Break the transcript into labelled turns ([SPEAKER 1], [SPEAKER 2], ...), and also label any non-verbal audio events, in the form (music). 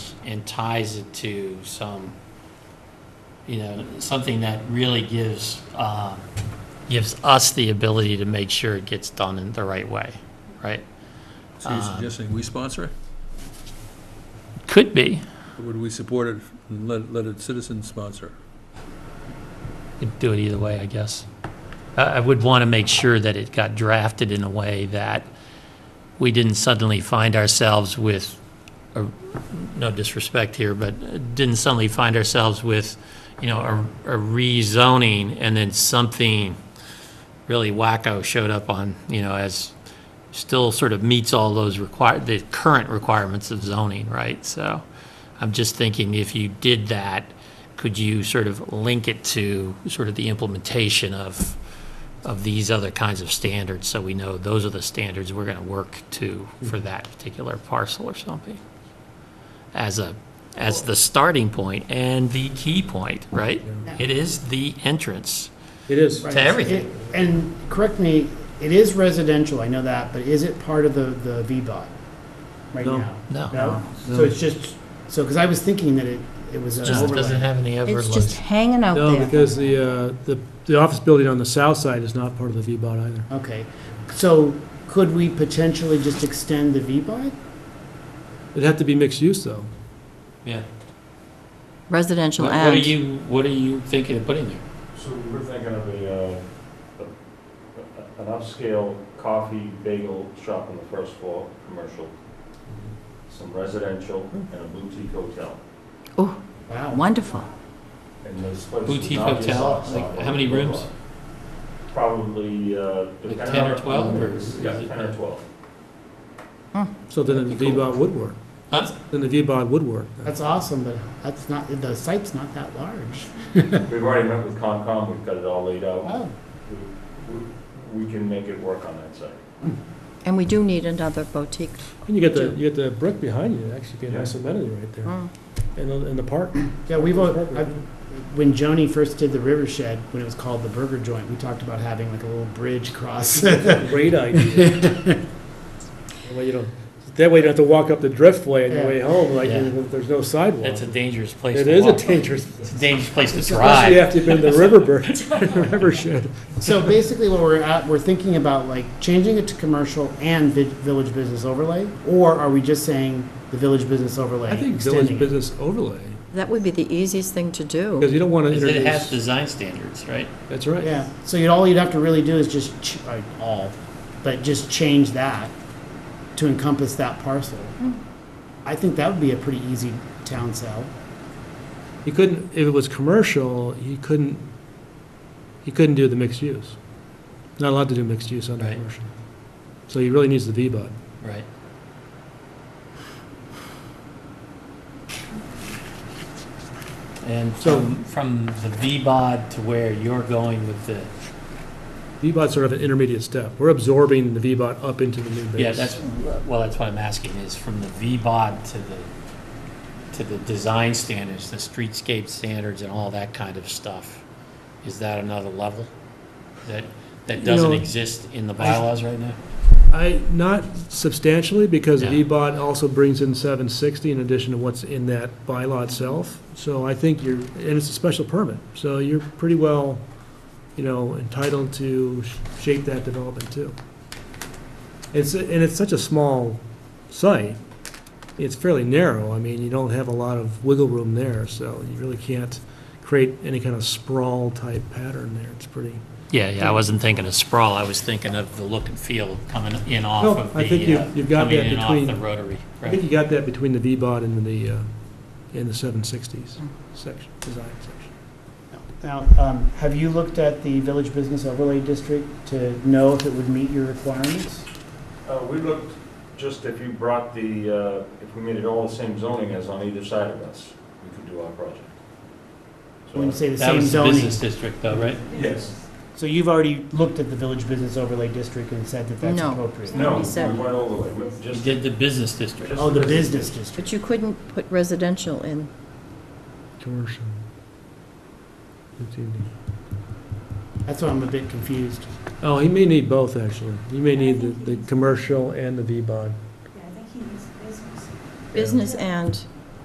[SPEAKER 1] and ties it to some, you know, something that really gives, um, gives us the ability to make sure it gets done in the right way, right?
[SPEAKER 2] So you're
[SPEAKER 1] Um,
[SPEAKER 2] suggesting we sponsor it?
[SPEAKER 1] Could be.
[SPEAKER 2] Or would we support it and let, let a citizen sponsor?
[SPEAKER 1] Could do it either way, I guess. I, I would want to make sure that it got drafted in a way that we didn't suddenly find ourselves with, a- no disrespect here, but didn't suddenly find ourselves with, you know, a, a rezoning and then something really wacko showed up on, you know, as still sort of meets all those require, the current requirements of zoning, right? So I'm just thinking if you did that, could you sort of link it to sort of the implementation of, of these other kinds of standards? So we know those are the standards we're going to work to for that particular parcel or something? As a, as the starting point and the key point, right? It is the entrance
[SPEAKER 3] It is.
[SPEAKER 1] to everything.
[SPEAKER 4] It- And correct me, it is residential, I know that, but is it part of the, the VDOT right
[SPEAKER 3] No.
[SPEAKER 4] now?
[SPEAKER 1] No.
[SPEAKER 4] No?
[SPEAKER 3] No.
[SPEAKER 4] So it's just, so, because I was thinking that it, it was an
[SPEAKER 1] Just doesn't
[SPEAKER 4] overlay.
[SPEAKER 1] have any
[SPEAKER 5] It's just
[SPEAKER 1] overloads.
[SPEAKER 5] hanging out
[SPEAKER 3] No,
[SPEAKER 5] there.
[SPEAKER 3] because the, uh, the, the office building on the south side is not part of the VBOT either.
[SPEAKER 4] Okay, so could we potentially just extend the VDOT?
[SPEAKER 3] It'd have to be mixed use, though.
[SPEAKER 1] Yeah.
[SPEAKER 5] Residential
[SPEAKER 1] What what are
[SPEAKER 5] and,
[SPEAKER 1] you, what are you thinking of putting there?
[SPEAKER 6] So we're thinking of a, uh, a- an upscale coffee bagel shop on the first floor, commercial, some residential, and a boutique hotel.
[SPEAKER 5] oh,
[SPEAKER 4] Wow,
[SPEAKER 5] wonderful.
[SPEAKER 6] And this place would
[SPEAKER 1] Boutique
[SPEAKER 6] not be
[SPEAKER 1] hotel?
[SPEAKER 6] a soft
[SPEAKER 1] Like,
[SPEAKER 6] spot.
[SPEAKER 1] how many rooms?
[SPEAKER 6] Probably, uh. depending
[SPEAKER 1] 10 or
[SPEAKER 6] on-
[SPEAKER 1] 12 or is
[SPEAKER 6] Yeah,
[SPEAKER 1] it-
[SPEAKER 6] ten or twelve.
[SPEAKER 3] So then the VBOT would work.
[SPEAKER 1] Huh?
[SPEAKER 3] Then the VBOT would work.
[SPEAKER 4] that's awesome, but that's not, the site's not that large.
[SPEAKER 6] We've already met with Concom, we've got it all laid out.
[SPEAKER 4] Wow,
[SPEAKER 6] We- We, we can make it work on that site.
[SPEAKER 5] And we do need another boutique.
[SPEAKER 3] And you get the, you get the brick behind you, it'd actually be a nice amenity right there.
[SPEAKER 5] Mm.
[SPEAKER 3] And, the- and the park.
[SPEAKER 4] yeah, we've, al-
[SPEAKER 3] Park right
[SPEAKER 4] I've-
[SPEAKER 3] there.
[SPEAKER 4] when Joni first did the River Shed, when it was called the Burger Joint, we talked about having like a little bridge
[SPEAKER 1] (laughs)
[SPEAKER 4] across. (laughs)
[SPEAKER 3] Great idea. That way you don't, that way you don't have to walk up the driftway on your way home, like,
[SPEAKER 1] Yeah.
[SPEAKER 3] there's no sidewalk.
[SPEAKER 1] That's a dangerous place
[SPEAKER 3] It
[SPEAKER 1] to
[SPEAKER 3] is a
[SPEAKER 1] walk. (laughs)
[SPEAKER 3] dangerous,
[SPEAKER 1] It's a dangerous place to
[SPEAKER 3] especially
[SPEAKER 1] drive.
[SPEAKER 3] after
[SPEAKER 1] (laughs)
[SPEAKER 3] you've been to Riverbend, River Shed.
[SPEAKER 4] So basically, what we're at, we're thinking about like changing it to commercial and vi- village business overlay, or are we just saying the village business overlay?
[SPEAKER 3] I think village
[SPEAKER 4] extending it?
[SPEAKER 3] business overlay,
[SPEAKER 5] That would be the easiest thing to
[SPEAKER 3] because
[SPEAKER 5] do.
[SPEAKER 3] you don't want to
[SPEAKER 1] Because It has
[SPEAKER 3] introduce,
[SPEAKER 1] design standards, right?
[SPEAKER 3] that's right.
[SPEAKER 4] Yeah, so you'd, all you'd have to really do is just, ch- uh, all, but just change that to encompass that parcel. I think that would be a pretty easy town sell.
[SPEAKER 3] You couldn't, if it was commercial, you couldn't, you couldn't do the mixed use. Not allowed to do mixed use under
[SPEAKER 1] Right.
[SPEAKER 3] commercial. So he really needs the VBOD.
[SPEAKER 1] Right. And
[SPEAKER 3] So-
[SPEAKER 1] from, from the VBOD to where you're going with the,
[SPEAKER 3] VBOD's sort of an intermediate step. We're absorbing the VBOD up into the new base.
[SPEAKER 1] yeah, that's, well, that's what I'm asking, is from the VBOD to the, to the design standards, the streetscape standards and all that kind of stuff. Is that another level that, that
[SPEAKER 3] You
[SPEAKER 1] doesn't
[SPEAKER 3] know,
[SPEAKER 1] exist in the bylaws right now?
[SPEAKER 3] I, not substantially, because the
[SPEAKER 1] Yeah.
[SPEAKER 3] VBOD also brings in seven sixty in addition to what's in that bylaw itself. So I think you're, and it's a special permit, so you're pretty well, you know, entitled to sh- shape that development too. It's, and it's such a small site, it's fairly narrow, I mean, you don't have a lot of wiggle room there, so you really can't create any kind of sprawl type pattern there, it's pretty.
[SPEAKER 1] Yeah, yeah, I wasn't thinking of sprawl, I was thinking of the look and feel coming in off
[SPEAKER 3] No,
[SPEAKER 1] of
[SPEAKER 3] I think
[SPEAKER 1] the,
[SPEAKER 3] you've-
[SPEAKER 1] uh,
[SPEAKER 3] you've got
[SPEAKER 1] coming
[SPEAKER 3] that
[SPEAKER 1] in off the
[SPEAKER 3] between-
[SPEAKER 1] rotary.
[SPEAKER 3] I think
[SPEAKER 1] right?
[SPEAKER 3] you got that between the V-Bod and the, uh, and the seven sixties section, design section.
[SPEAKER 4] Now, um, have you looked at the village business overlay district to know if it would meet your requirements?
[SPEAKER 6] Uh, we looked, just if you brought the, uh, if we made it all the same zoning as on either side of us, we could do our project. So-
[SPEAKER 4] When you say the
[SPEAKER 1] That
[SPEAKER 4] same
[SPEAKER 1] was the
[SPEAKER 4] zoning?
[SPEAKER 1] business district though, right?
[SPEAKER 6] Yes.
[SPEAKER 4] So you've already looked at the village business overlay district and said that that's
[SPEAKER 5] No.
[SPEAKER 4] appropriate?
[SPEAKER 6] No, we
[SPEAKER 5] Seventy-seven.
[SPEAKER 6] went all the way, we
[SPEAKER 1] You
[SPEAKER 6] just,
[SPEAKER 1] did the business district.
[SPEAKER 4] Oh, the business district.
[SPEAKER 5] But you couldn't put residential in.
[SPEAKER 3] Commercial.
[SPEAKER 4] That's why I'm a bit confused.
[SPEAKER 3] Oh, he may need both, actually. He may need the, the commercial and the V-Bod.
[SPEAKER 5] Business and